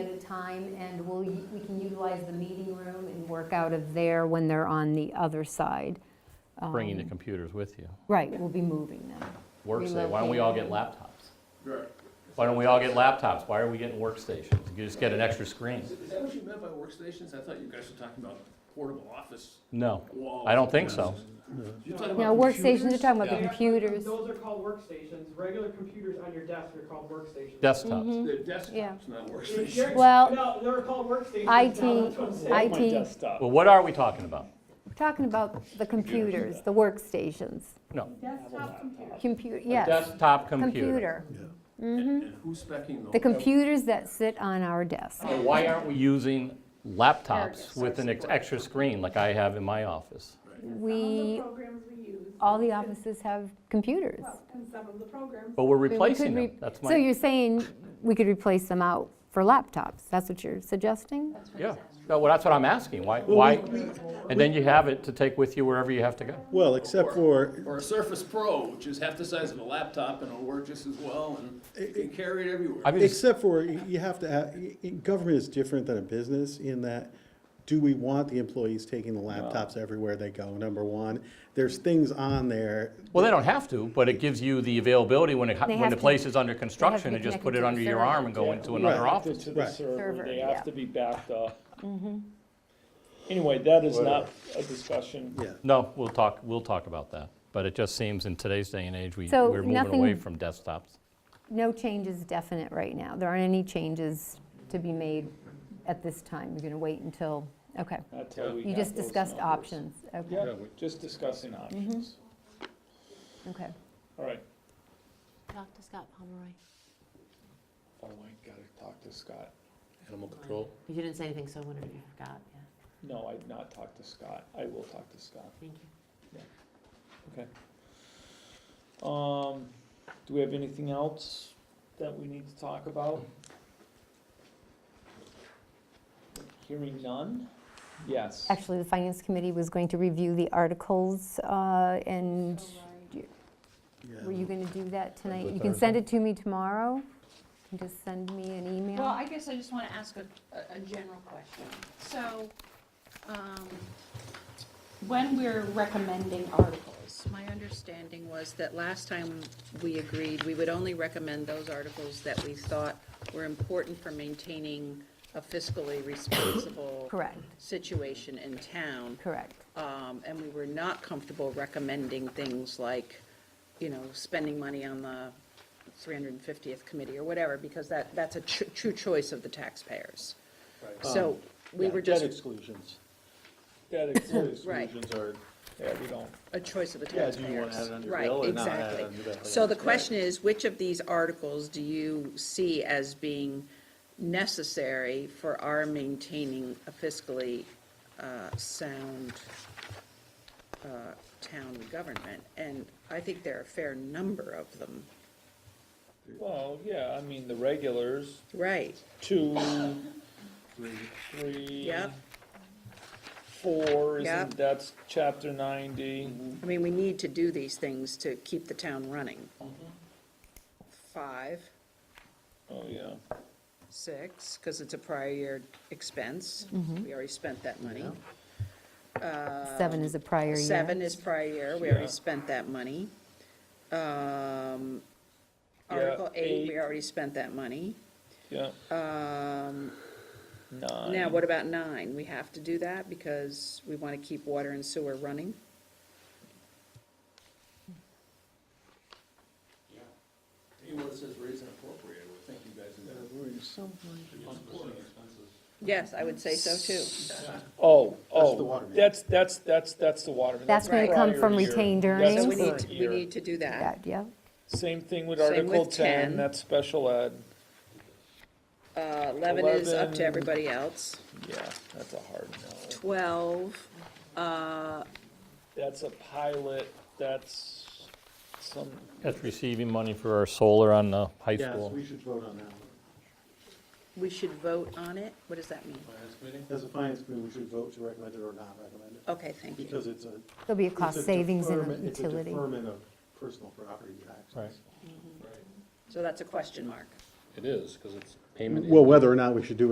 of time, and we'll, u- we can utilize the meeting room and work out of there when they're on the other side. Um, bringing the computers with you. Right, we'll be moving them. Workstation, why don't we all get Relocating. laptops? Right. Why don't we all get laptops? Why are we getting workstations? You just get an extra screen. Is is that what you meant by workstations? I thought you guys were talking about portable office No, walls. I don't think so. You're talking Now, about workstations, you're computers? talking about the Yeah. computers. Those are called workstations. Regular computers on your desk are called workstations. Mm-hmm. desktops. They're Yeah. desktops, not They're- they're- workstations. Well, No, they're called workstations IT now, that's what I'm saying. IT, desktop. Well, what are we talking about? we're talking about the computers, the workstations, Desktop computer. computer, A yes, Desktop computer. computer. And and who's specking those? Mm-hmm. The computers that sit on our desk. And why aren't we using laptops with an ex- Surgical. extra screen like I have in my office? Some of the We, programs we use. all the and- offices have computers. Well, and some of the programs. But we're I mean, we could replacing them. re- That's So my, you're saying we could replace them out for laptops? That's what you're suggesting? yeah. No, well, that's what I'm asking. Why, why? And then you have it to take with you wherever you have to go. Well, except for, Or a Surface Pro, which is half the size of a laptop and it'll work just as well and you can carry it everywhere. I mean, it's- e, except for, y- you have to, have- y- y- government is different than a business in that, do we want the employees taking the laptops everywhere they go, number one? There's things on there, Well, they don't have to, but it gives you the availability when it, They when have the to- place is under to construction, be to just connected put to it the under your server. arm and go Yeah, into another Right. office. To the Right. server, they Server, yeah. Mm-hmm. have to be backed up. Anyway, that is not a discussion. yeah. No, we'll talk, we'll talk about that, but it just seems in today's day and age, we, So we're moving away nothing- from desktops. No changes definite right now. There aren't any changes to be made at this time. You're going to wait until, okay. That's how we You have just those discussed numbers. options. Mm-hmm. Okay, Yeah, we're just discussing options. okay. All right. Talk to Scott Pomeroy. Oh, I gotta talk to Scott. Animal control. You didn't say anything, so I wondered if you forgot, yeah, No, I've not talked to Scott. I will talk to Scott. thank you. Okay. Um, do we have anything else that we need to talk about? Hearing none? Yes. Actually, the Finance Committee was going to review the articles, uh, and yeah. were you going to do that tonight? it You can send it to me tomorrow. You can Just send me an Well, email. I guess I just want to ask a, a- a general question. So, um, when we're recommending articles, my understanding was that last time we agreed, we would only recommend those articles that we thought were important for maintaining a fiscally responsible Correct, situation in town. correct. um, and we were not comfortable recommending things like, you know, spending money on the 350th committee or whatever, because that, that's a tr- true choice of the taxpayers. So we Yeah, were Debt just exclusions. Debt exclusions Right. are, yeah, we don't. a choice of the Yeah, taxpayers. do you wanna have it on your Right, bill or not have it exactly. on your bill? So the question is, which of these articles do you see as being necessary for our maintaining a fiscally uh, sound uh, town government? And I think there are a fair number of them. Well, yeah, I mean, the regulars, Right, two, three. yep. Four, Yep. isn't, that's chapter ninety. I mean, we need to do these things to keep the town running. Five, Oh, yeah. six, because it's a prior year expense. We already spent that money. Uh, Seven is a prior year. Seven is prior year, we already Yeah. spent that money. Um, Yeah, Article eight, we eight. already spent that money. Yeah. Um, Nine. now, what about nine? We have to do that because we want to keep water and sewer running. Anyone that says raise and appropriate, I would think you guys would. Yes, I would say so too. Oh, the oh, water main. that's, that's, that's, that's the water. main. That's gonna prior come from year. retained That's So earnings? we need, current to- we year. need to do that. That, Yeah, Same thing with Same with Article 10. ten, that's special ed. Uh, eleven is up to Eleven. everybody else. Yeah, that's a hard no. Twelve, uh, That's a pilot, that's some, That's receiving money for our solar on the high Yes, school. we should vote on that one. we should vote on it. What does that mean? As a finance committee, we should vote to recommend it or not recommend it, Okay, thank you. because it's a. there'll be a it's a cost savings in deferment- the it's a utility. deferment of personal property taxes. Right. So that's a question mark. It is, because it's payment. Well, whether or not we should do